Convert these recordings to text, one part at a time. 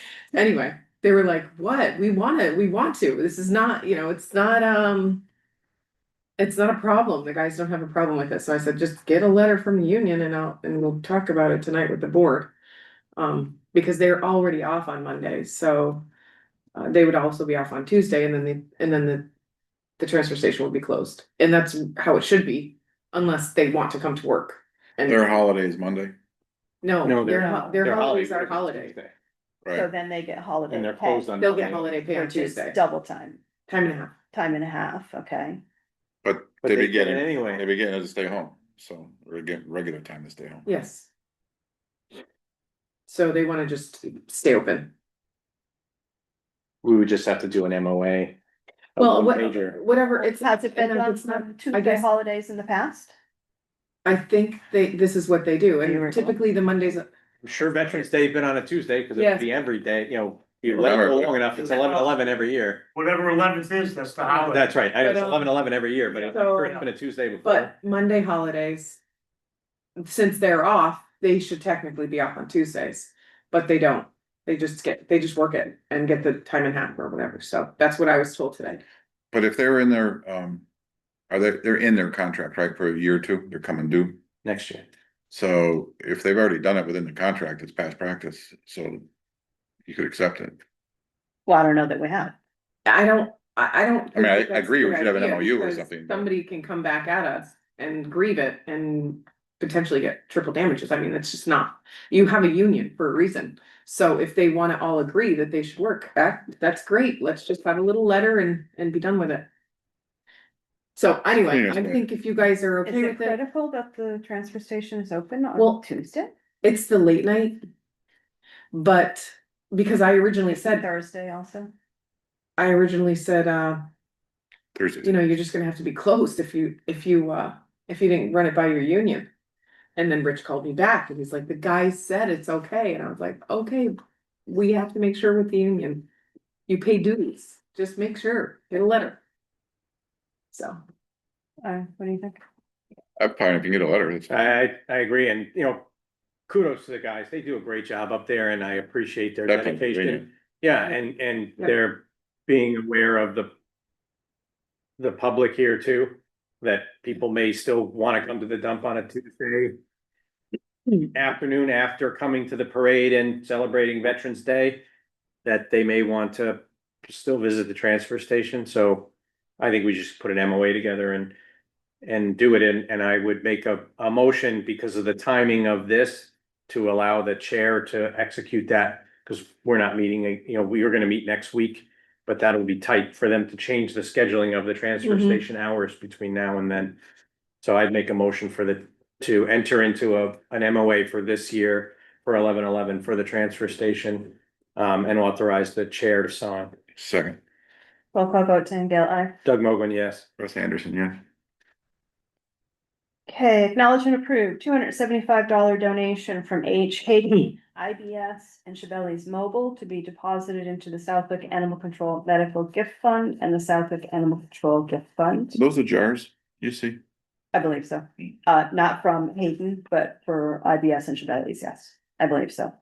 Anyway, they were like, what? We wanna, we want to. This is not, you know, it's not, um. It's not a problem. The guys don't have a problem with it. So I said, just get a letter from the union and I'll, and we'll talk about it tonight with the board. Um, because they're already off on Monday, so. Uh, they would also be off on Tuesday and then the, and then the. The transfer station will be closed. And that's how it should be unless they want to come to work. Their And holidays Monday, no, No, their, they're- ho- their holidays are holiday. right? So then they get holiday. And they're pay, closed on. They'll get Monday. holiday pay on which is Tuesday, Double time, time and a half. time and a half, okay? But But they they be get it getting, anyway. they be getting it to stay home, so, or get regular time to stay home. Yes. So they wanna just stay open. We would just have to do an MOA. a Well, what, one-pager. whatever, it's. Has it been and done it's not- on I Tuesday guess- holidays in the past? I think they, this is what they do, Do you and recall? typically the Mondays, I'm Sure, Veterans Day has been on a Tuesday, because Yes. it'd be every day, you know, you let it go long enough, it's eleven eleven every year. Whatever eleventh is, that's the holiday. That's right, I know it's But, um, eleven eleven every year, but it's so- sure it's been a Tuesday before. but Monday holidays. Since they're off, they should technically be off on Tuesdays, but they don't. They just get, they just work it and get the time and half or whatever, so that's what I was told today. But if they're in their, um, are they, they're in their contract, right, for a year or two, they're coming due. Next year. So if they've already done it within the contract, it's past practice, so you could accept it. Well, I don't know that we have. I don't, I, I don't. I mean, I think that's agree, a we good should have an idea MOU or because something, but- Somebody can come back at us and grieve it and potentially get triple damages. I mean, it's just not, you have a union for a reason. So if they wanna all agree that they should work, that, that's great. Let's just have a little letter and, and be done with it. So anyway, Yeah. I think if you guys are Is okay it with it, critical that the transfer station is open Well, on Tuesday? it's the late night. But because I originally said, Thursday also? I originally said, uh, you Thursday, know, you're just gonna have to be closed if you, if you, uh, if you didn't run it by your union. And then Rich called me back and he's like, the guy said it's okay, and I was like, okay, we have to make sure with the union. You pay duties, just make sure, get a letter. So, Uh, what do you think? I'm fine if you get a letter, it's, I, I, I agree, and, you know, kudos to the guys, they do a great job up there, and I appreciate their Definitely, dedication. Yeah, and, and Yeah. they're being aware of the. The public here too, that people may still wanna come to the dump on a Tuesday. Afternoon after coming to the parade and celebrating Veterans Day, that they may want to still visit the transfer station, so. I think we just put an MOA together and, and do it in, and I would make a, a motion because of the timing of this. To allow the chair to execute that because we're not meeting, uh, you know, we are gonna meet next week. But that'll be tight for them to change the scheduling of the transfer Mhm. station hours between now and then. So I'd make a motion for the, to enter into a, an MOA for this year for eleven eleven for the transfer station. Um, and authorize the chair to sign. second, Roll call vote, Tangale, aye. Doug Mogul, yes. Russ Anderson, yeah. Okay, acknowledge and approve two hundred seventy-five dollar donation from H E, Haiti, IBS, and Chevelle's Mobile to be deposited into the Southwick Animal Control Medical Gift Fund and the Southwick Animal Control Gift Fund. Those are jars, you see, I believe so. Uh, not from Hayden, but for IBS and Chevelle's, yes, I believe so.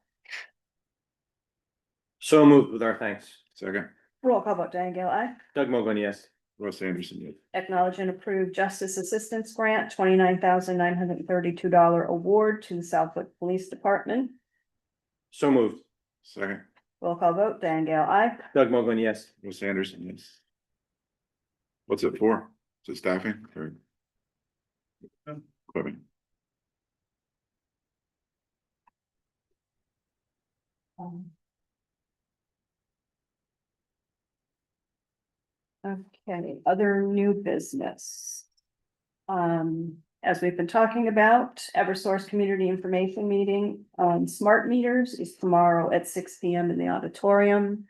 So moved with our thanks. second, Roll call vote, Diane Gale, aye. Doug Mogul, yes. Russ Anderson, yeah. Acknowledge and approve Justice Assistance Grant, twenty-nine thousand nine hundred and thirty-two dollar award to the Southwick Police Department. So moved. second, Roll call vote, Diane Gale, aye. Doug Mogul, yes. Russ Anderson, yes. What's it for? Is it staffing or? Equipment, Um. Okay, other new business. Um, as we've been talking about, Eversource Community Information Meeting on smart meters is tomorrow at six P M in the auditorium.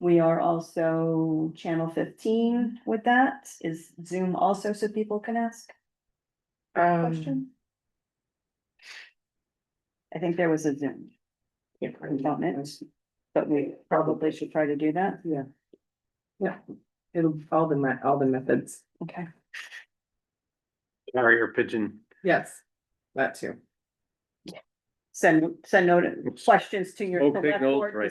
We are also channel fifteen with that. Is Zoom also so people can ask um, questions? I think there was a Zoom yeah, component, but we probably should try to do that. it'll, all the, me- all the methods, Okay. Carrier pigeon. yes, that too. send, send note, questions to your Smoke select signals, board right.